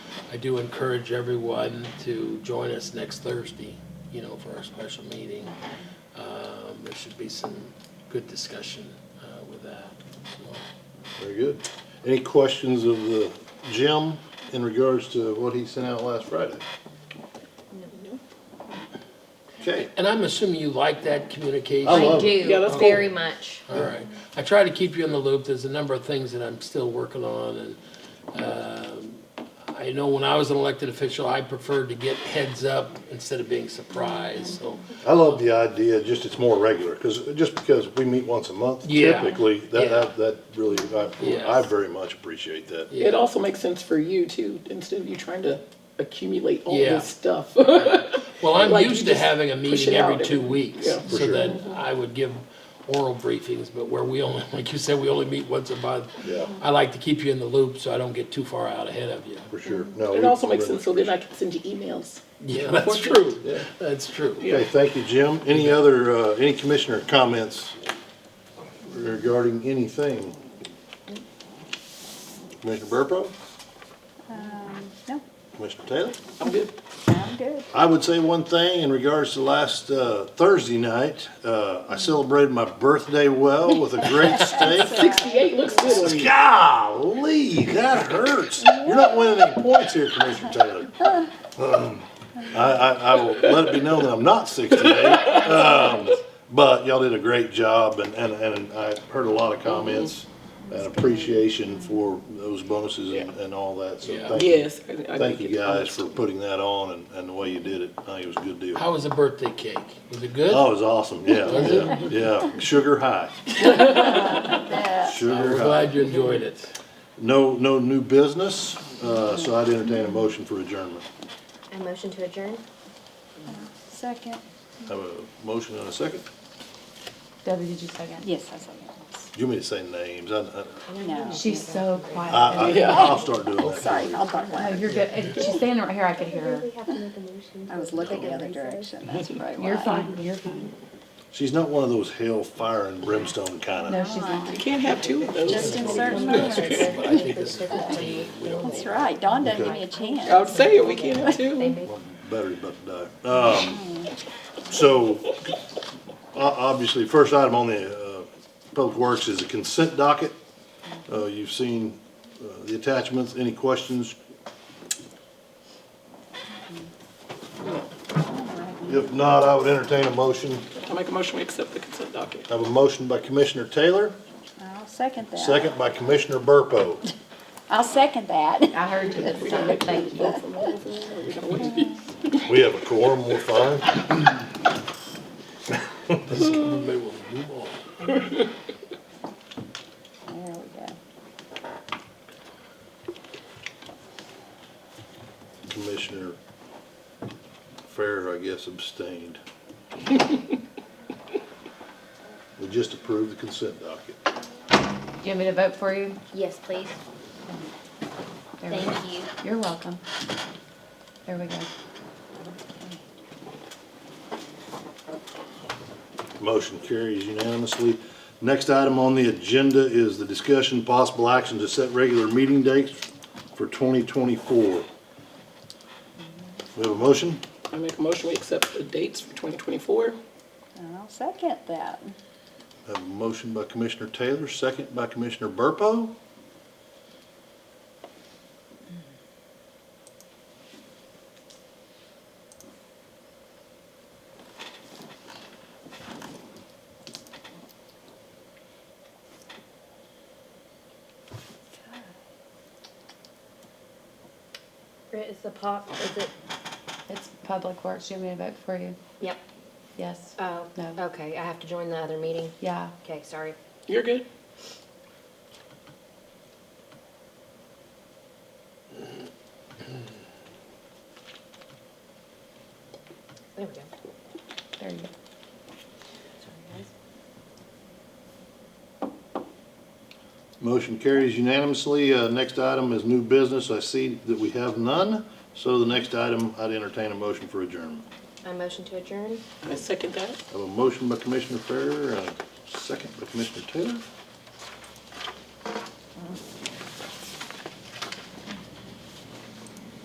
I do encourage everyone to join us next Thursday, you know, for our special meeting. Um, There should be some good discussion uh, with that. Very good. Any questions of the Jim in regards to what he sent out last Friday? Okay, And I'm assuming you like that communication? I love I it. Yeah, do, that's cool. very much. All right. I try to keep you in the loop. There's a number of things that I'm still working on and um, I know when I was an elected official, I preferred to get heads up instead of being surprised, so. I love the idea, just it's more regular, because, just because we meet once a month Yeah. typically, that, Yeah. that, that really, Yes. I, I very much appreciate that. It also makes sense for you too, instead of you trying to accumulate all Yeah. this stuff. Well, I'm Like, you used to just having a push meeting it out every every- two weeks, yeah. For so sure. that I would give oral briefings, but where we only, like you said, we only meet once a month. Yeah. I like to keep you in the loop so I don't get too far out ahead of you. For sure, no. It we- also we makes very sense so then I much can send you emails. Yeah, that's Working. true. That's true. appreciate it. Okay, thank you, Jim. Any other, uh, any commissioner comments regarding anything? Commissioner Burpo? No, Commissioner Taylor? I'm good. I'm good. I would say one thing in regards to last uh, Thursday night. Uh, I celebrated my birthday well with a great steak. Sixty-eight looks good on you. Golly, that hurts. You're not winning any points here, Commissioner Taylor. Um, I, I, I will let it be known that I'm not 68. Um, but y'all did a great job, and, and, and I heard a lot of comments and appreciation for those bonuses and, and all that. So Yeah. thank you. Yes. I- I Thank think you it- guys for putting that on and, and the way you did it. I think it was a good deal. How was the birthday cake? Was it good? Oh, it was awesome. Yeah, yeah, yeah. Sugar high. We're Sugar high. glad you enjoyed it. No, no new business, uh, so I'd entertain a motion for adjournment. I motion to adjourn. Second. Have a motion and a second. Debbie, did you second? Yes, I second. Do you want me to say names? I, I, No. She's so quiet. I, I- I'll start doing that. Sorry, I'll talk Oh, one. you're good. And She's standing right here. I could hear her. We have to make a motion. I was looking the other direction, that's right. You're fine. You're fine. She's not one of those hellfire and brimstone kind No, of. she's not. You can't have two of those. Just in certain moments. But I think this is fifteen. We don't That's right, Dawn doesn't give me a I chance. would say it, we can't have They two. make Battery's about to die. Um, so, o- obviously, first item on the, uh, Public Works is a consent docket. Uh, you've seen, uh, the attachments. Any questions, If not, I would entertain a motion. I make a motion, we accept the consent docket. I have a motion by Commissioner Taylor, I'll second that. second by Commissioner Burpo. I'll second that. I heard you. That's fine. Thank you. We have a quorum, we're fine. Maybe we'll move on. There we go. Commissioner Fair, I guess, abstained. We just approved the consent docket. You want me to vote for you? Yes, please. There we go. Thank you. You're welcome. There we go. Motion carries unanimously. Next item on the agenda is the discussion, possible action to set regular meeting dates for 2024. We have a motion? I make a motion, we accept the dates for twenty twenty-four. I'll second that. Have a motion by Commissioner Taylor, second by Commissioner Burpo. Britt, is the pop, is it? It's Public Works. You want me to vote for you? Yep. Yes. Oh, No. okay, I have to join the other meeting. Yeah. Okay, sorry. You're good? There we go. There you go. Sorry, guys. Motion carries unanimously. Uh, Next item is new business. I see that we have none. So the next item, I'd entertain a motion for adjournment. I motion to adjourn. I second that. I have a motion by Commissioner Farrer and a second by Commissioner Taylor.